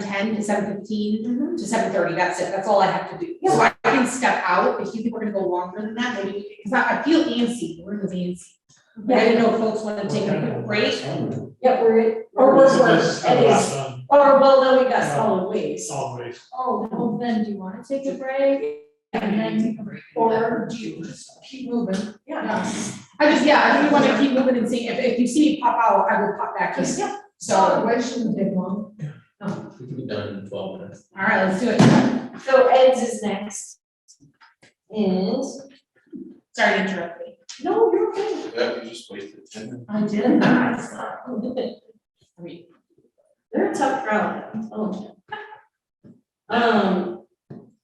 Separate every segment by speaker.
Speaker 1: ten to seven fifteen to seven thirty, that's it, that's all I have to do. So I can step out, if you think we're gonna go longer than that, maybe, because I, I feel antsy, the room is antsy. But I didn't know if folks wanna take a quick break,
Speaker 2: Yeah, we're, or
Speaker 3: This
Speaker 2: we're,
Speaker 3: is-
Speaker 2: we're,
Speaker 3: this is kind of
Speaker 2: it is,
Speaker 3: like, um,
Speaker 2: or well, then we got solid waste.
Speaker 3: solid waste.
Speaker 2: Oh,
Speaker 4: Well, then do you wanna take a break and then, or do you just keep moving?
Speaker 2: yeah,
Speaker 1: I just, yeah, I really wanna keep moving and seeing, if, if you see me pop out, I will pop back in,
Speaker 2: just, yeah,
Speaker 1: so,
Speaker 4: So
Speaker 1: all
Speaker 4: it shouldn't take long.
Speaker 5: We can be done in twelve minutes.
Speaker 1: right, let's do it,
Speaker 2: so Ed's is next. And,
Speaker 1: sorry to interrupt you.
Speaker 2: no, you're okay.
Speaker 5: Yeah, you just wasted ten minutes.
Speaker 1: I did.
Speaker 2: They're a tough crowd, I'm telling you. Um,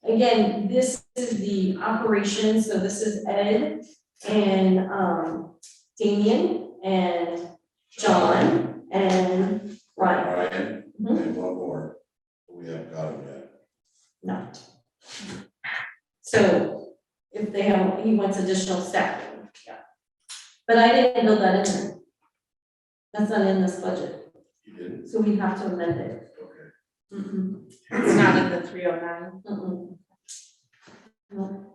Speaker 2: again, this is the operation, so this is Ed and, um, Damian and John and Ryan.
Speaker 6: Ryan,
Speaker 2: Mhm.
Speaker 6: and one more, we haven't got him yet.
Speaker 2: not. So if they have, he wants additional staffing, yeah. But I didn't build that in there. That's not in this budget,
Speaker 6: You didn't,
Speaker 2: so we have to amend it.
Speaker 6: okay.
Speaker 2: Mm-mm,
Speaker 1: Mm-hmm. It's not in the three oh nine.
Speaker 2: mm-mm. No.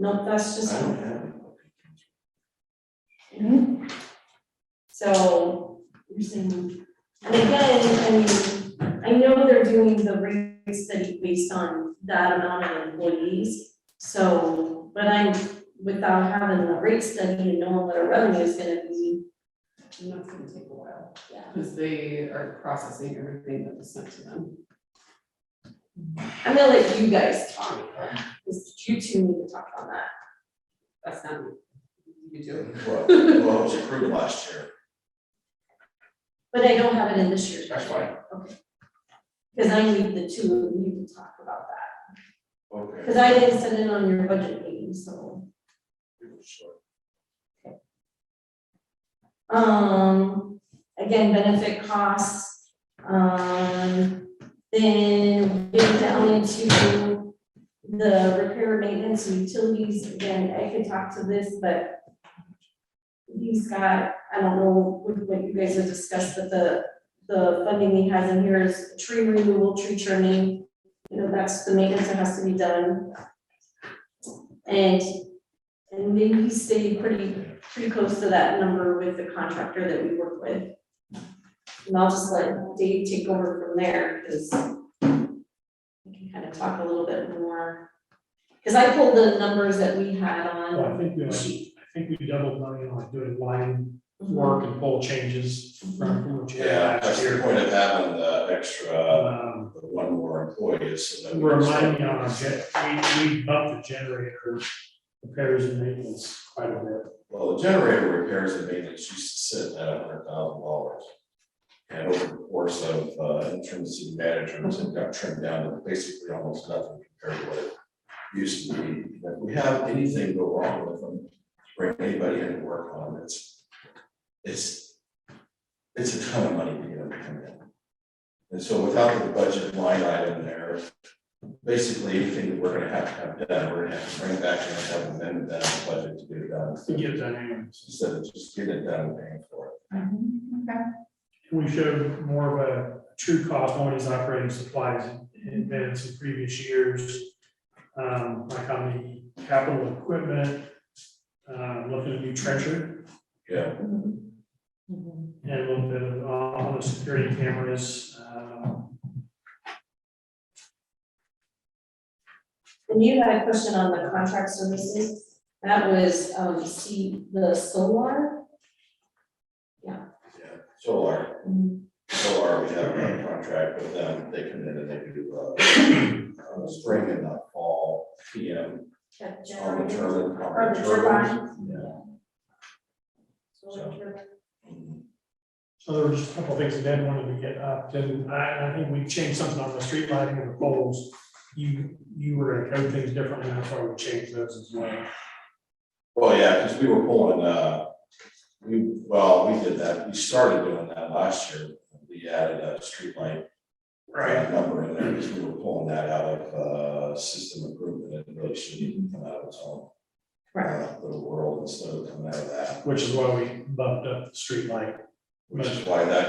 Speaker 2: No, that's
Speaker 6: I
Speaker 2: just,
Speaker 6: don't have it.
Speaker 2: so you're saying, and again, I mean, I know they're doing the rate study based on that amount of employees. So, but I'm, without having the rate study and knowing what our revenue is gonna be,
Speaker 7: And that's gonna take a while,
Speaker 2: yeah.
Speaker 7: because they are processing everything that was sent to them.
Speaker 2: I'm gonna let you guys talk, because you two need to talk on that.
Speaker 7: That's not, you do it.
Speaker 6: Well, well, it was approved last year.
Speaker 2: But I don't have it in this year's.
Speaker 6: That's fine.
Speaker 2: Okay. Cause I need the two of you to talk about that,
Speaker 6: Okay.
Speaker 2: cause I didn't send it on your budget meeting, so.
Speaker 6: Sure.
Speaker 2: Um, again, benefit costs, um, then getting down into the repair, maintenance, and utilities, again, I could talk to this, but he's got, I don't know what, what you guys have discussed, but the, the funding he has in here is tree removal, tree trimming, you know, that's the maintenance that has to be done. And, and maybe he stayed pretty pretty close to that number with the contractor that we work with. And I'll just let Dave take over from there, because we can kind of talk a little bit more. Because I pulled the numbers that we had
Speaker 3: Well,
Speaker 2: on
Speaker 3: I think we,
Speaker 2: the
Speaker 3: I
Speaker 2: sheet.
Speaker 3: think we doubled money on doing line work and pole changes from from what you
Speaker 6: Yeah,
Speaker 3: had
Speaker 6: that's
Speaker 3: last
Speaker 6: your
Speaker 3: year.
Speaker 6: point of having the extra,
Speaker 3: Um,
Speaker 6: the one more employee is so that. we can start-
Speaker 3: remind me on our gen, we, we bumped the generator repairs and maintenance quite a bit.
Speaker 6: Well, the generator repairs and maintenance used to sit at a hundred thousand dollars. And over the course of, uh, interim city managers, it got trimmed down to basically almost nothing compared to what it used to be. And If we have anything go wrong with them, bring anybody in to work on it, it's, it's, it's a ton of money to get them to come in. And so without the budget line item there, basically anything that we're gonna have to have done, we're gonna have to bring back and have amended that budget to get it done.
Speaker 3: To get that in,
Speaker 6: Instead of just get it done and paying for it.
Speaker 1: Okay.
Speaker 3: we showed more of a true cost on these operating supplies in advance of previous years. Um, like on the capital equipment, uh, looking at new trencher
Speaker 6: Yeah.
Speaker 3: and a little bit of, uh, on the security cameras, uh,
Speaker 2: And you had a question on the contract services. That was, um, see, the solar.
Speaker 6: Yeah, solar, solar, we have a contract with them, they come in and they do, uh, uh, spring and not fall, PM,
Speaker 2: That
Speaker 6: on
Speaker 2: generator.
Speaker 6: the turbine.
Speaker 2: Or the turbine.
Speaker 6: Yeah.
Speaker 2: Solar turbine.
Speaker 6: Mhm.
Speaker 3: So there was just a couple of things that Ed wanted to get up, and I, I think we changed something on the street lighting and the poles. You, you were gonna code things differently, that's why we changed those as well.
Speaker 6: Well, yeah, because we were pulling, uh, we, well, we did that, we started doing that last year, we added a streetlight uh, number in there, because we were pulling that out of, uh, system improvement, it really shouldn't even come out of its own.
Speaker 2: Right.
Speaker 6: uh, Little world instead of coming out of that,
Speaker 3: Which is why we bumped up the street light.
Speaker 6: which is why that